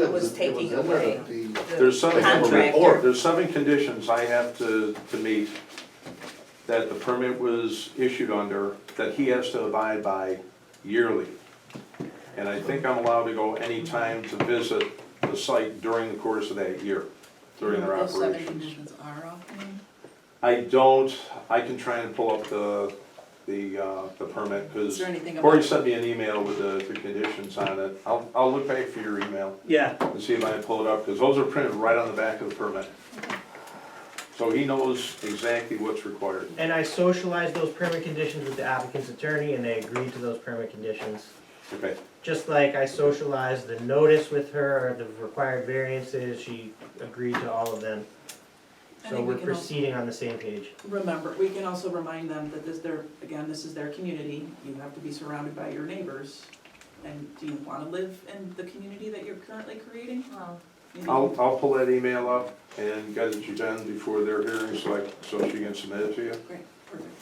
It was taking away. There's some, Contractor. there's seven conditions I have to, to meet that the permit was issued under, that he has to abide by yearly. And I think I'm allowed to go anytime to visit the site during the course of that year, during their Those seven operations. conditions are off then? I don't, I can try and pull up the, the, uh, the permit, Is because there anything Corey about, sent me an email with the, the conditions on it. I'll, I'll look back for your email. Yeah, and see if I can pull it up, because those are printed right on the back of the permit. So he knows exactly what's required. and I socialized those permit conditions with the applicant's attorney, and they agreed to those permit conditions. Okay, Just like I socialized the notice with her, the required variances, she agreed to all of them. I So think we we're can also proceeding on the same page. remember, we can also remind them that this, their, again, this is their community, you have to be surrounded by your neighbors. And do you wanna live in the community that you're currently creating? You know, I'll, I'll pull that email up and get it to Jen before their hearing, so I, so she can submit it to you. Great, perfect.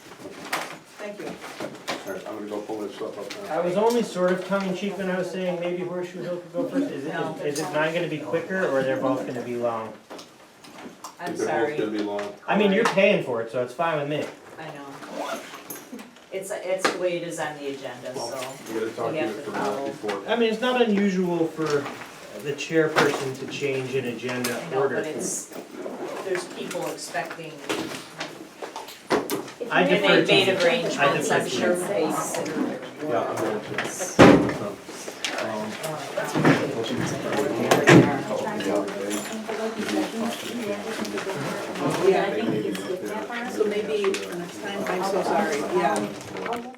Thank you. All right, I'm gonna go pull that stuff up I now. was only sort of tongue in cheek when I was saying maybe Horseshoe Hill could go first. Is it, No. is it mine gonna be quicker, or they're both gonna be long? I'm They're both sorry, gonna be long. I mean, you're paying for it, so it's fine with me. I know. It's, it's the way it is on the agenda, so. We gotta talk to We you have to for now follow. before. I mean, it's not unusual for the chairperson to change an agenda I know, order. but it's, there's people expecting, I and defer they to made you. I arrangements, defer I'm to sure you. they considered. Yeah, I'm going to. That's- so, um, Yeah, I think it's good. So maybe for next time, I'm so sorry, yeah.